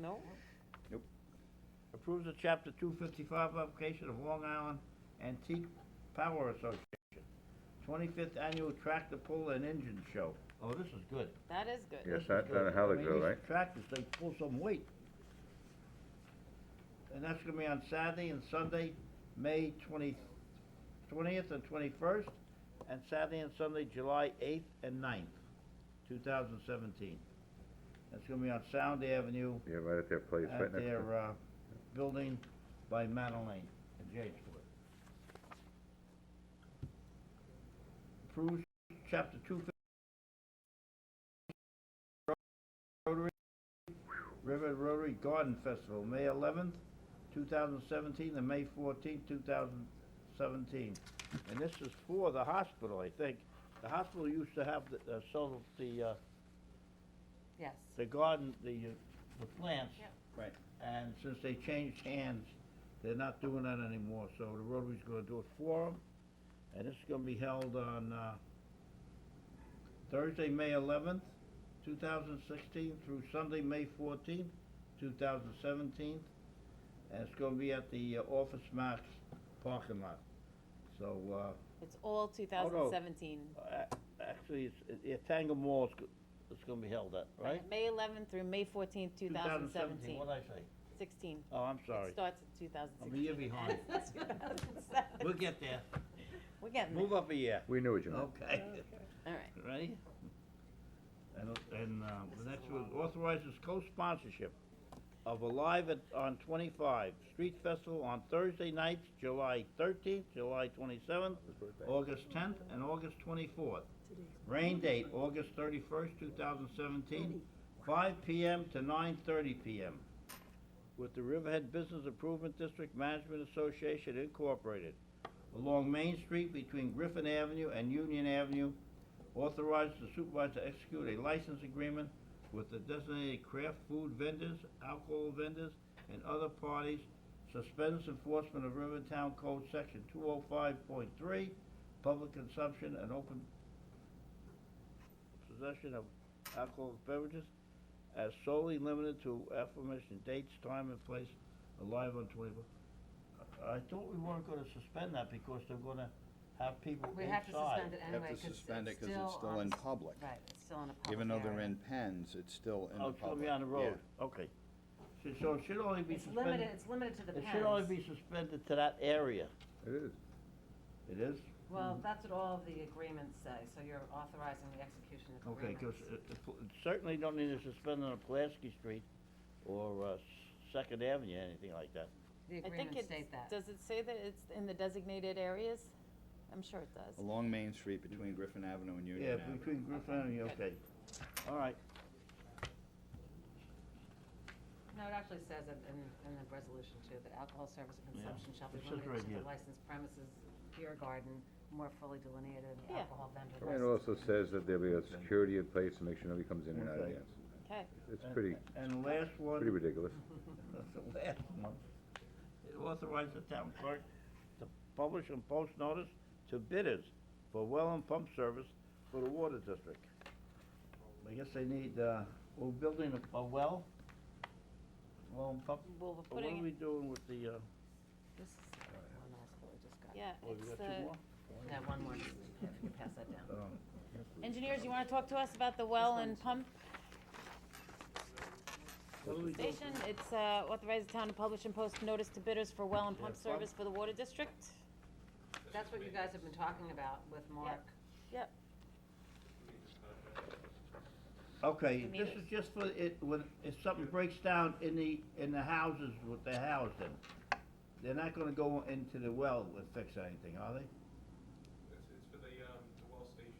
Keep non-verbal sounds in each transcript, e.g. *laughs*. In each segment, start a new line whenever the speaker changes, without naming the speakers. No?
Nope.
Approves the chapter two fifty-five application of Long Island Antique Power Association, twenty-fifth annual tractor pull and engine show. Oh, this is good.
That is good.
Yes,
This is
that,
good.
that hell
I
is
mean,
good,
these
right?
Tractors, they pull some weight. And that's gonna be on Saturday and Sunday, May twenty, twentieth and twenty-first, and Saturday and Sunday, July eighth and 9th, two thousand seventeen. That's gonna be on Sound Avenue
Yeah, right at their place, right
at
next to.
their, uh, building by Madeline in Jamesport. Approves chapter two fif- Rotary, River Rotary Garden Festival, May eleventh, two thousand seventeen, and May fourteenth, two thousand seventeen. And this is for the hospital, I think. The hospital used to have the, uh, sell the, uh,
Yes.
the garden, the, uh, the plants.
Yep.
Right. And since they changed hands, they're not doing that anymore, so the Rotary's gonna do it for them. And it's gonna be held on, uh, Thursday, May eleventh, two thousand sixteen, through Sunday, May fourteenth, two thousand seventeen. And it's gonna be at the uh, Office Max parking lot. So, uh,
It's all two thousand seventeen.
a- actually, it's, it, Tango Mall is, go- it's gonna be held at, right?
May eleventh through May fourteenth, two thousand seventeen.
What'd I say?
Sixteen.
Oh, I'm
It
sorry.
starts in two thousand
I'm a
sixteen.
*laughs*
year behind. We'll get there.
We're getting there.
Move up a year.
We knew what you meant.
Okay.
All right.
Ready? And, and, uh, the next one authorizes co-sponsorship of a live at, on twenty-five, street festival on Thursday nights, July thirteenth, July twenty-seventh, August tenth, and August twenty-fourth. Rain date, August thirty-first, two thousand seventeen, five PM to nine thirty PM. With the Riverhead Business Improvement District Management Association Incorporated, along Main Street between Griffin Avenue and Union Avenue, authorized the supervisor to execute a license agreement with the designated craft food vendors, alcohol vendors, and other parties, suspends enforcement of Rivertown Code Section two oh five point three, public consumption and open possession of alcoholic beverages as solely limited to aforementioned dates, time, and place, alive on twenty-four. I I thought we weren't gonna suspend that because they're gonna have people
We
inside.
have to suspend it
Have to
anyway, 'cause
suspend it
it's
'cause it's
still
still
on
in
the s-
public.
Right, it's still in a public
Even though they're
area.
in pens, it's still in the
Oh,
public.
it's gonna be on the road, okay. So- So it should only be
It's limited,
suspended,
it's limited to the
it should only
pens.
be suspended to that area.
It is.
It is?
Well, that's what all of the agreements say, so you're authorizing the execution of
Okay,
agreements.
because it it pl- it certainly don't need to suspend on Pulaski Street or uh, S- Second Avenue, anything like that.
The
I think
agreements
it's,
state that.
does it say that it's in the designated areas? I'm sure it does.
Along Main Street between Griffin Avenue and
Yeah,
Union Avenue.
between Griffin Avenue, okay. All right,
No, it actually says it in, in the resolution too, that alcohol service and
Yeah.
consumption shall be
It says right
limited to
here.
the licensed premises, beer garden, more fully delineated, and the
Yeah.
alcohol vendor.
And it
license.
also says that there'll be a security in place to make sure nobody comes in and out of
Okay.
the house.
Okay,
It's
And-
pretty,
and the last one.
pretty ridiculous.
Mm-hmm. That's *laughs* the last one. It authorized the town clerk to publish and post notice to bidders for well and pump service for the water district. I guess they need, uh, we're building a, a well, well and pump.
well, we're
But What are
putting,
we
it-
doing with the, uh,
This is the one I suppose just got.
yeah,
oh,
it's
you got
the,
two more?
No, one more, if you could pass
*laughs*
that down.
Um,
engineers, you wanna talk to us about the well and pump
what are we doing?
station? It's, uh, authorize the town to publish and post notice to bidders for well and pump
Yeah, pump.
service for the water district?
That's what you guys have been talking about with Mark.
Yep,
Okay,
We need
this
it.
is just for it, when, if something breaks down in the, in the houses with the housing. They're not gonna go into the well and fix anything, are they?
It's, it's for the, um, the well stations,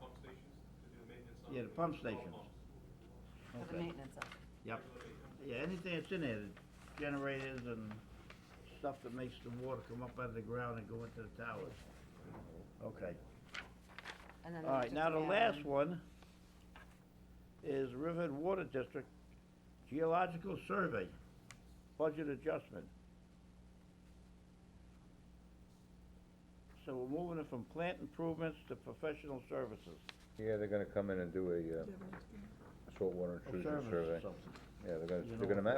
pump stations, to do the maintenance on.
Yeah, the pump
all
stations.
pumps.
For the
Okay.
maintenance of it.
Yep. Yeah, anything that's in there, the generators and stuff that makes the water come up out of the ground and go into the towers. Okay,
And then
all right,
just
now the
add
last
in-
one is Riverhead Water District Geological Survey, budget adjustment. So we're moving it from plant improvements to professional services.
Yeah, they're gonna come in and do a, uh, saltwater
or
intrusion
service or
survey.
something.
Yeah, they're
You
gonna,
know
they're gonna
what?